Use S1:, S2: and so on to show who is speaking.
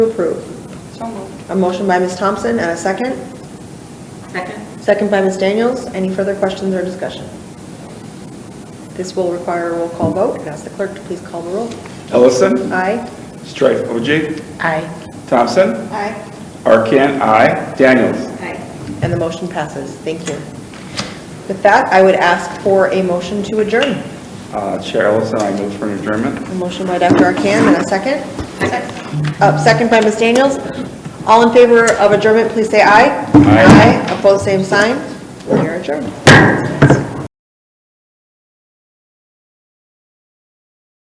S1: to approve.
S2: So moved.
S1: A motion by Ms. Thompson and a second.
S2: Second?
S1: Second by Ms. Daniels. Any further questions or discussion? This will require a roll call vote. I'd ask the clerk to please call the roll.
S3: Ellison,
S1: Aye.
S3: Strife OJ,
S1: Aye.
S3: Thompson,
S2: Aye.
S3: Arcan, I, Daniels.
S2: Aye.
S1: And the motion passes. Thank you. With that, I would ask for a motion to adjourn.
S3: Uh, Chair Ellison, I move for an adjournment.
S1: A motion by Dr. Arcan and a second.
S2: Second?
S1: Uh, Second by Ms. Daniels. All in favor of adjournment, please say aye.
S3: Aye.
S1: Aye. Opposed, same sign. We are adjourned.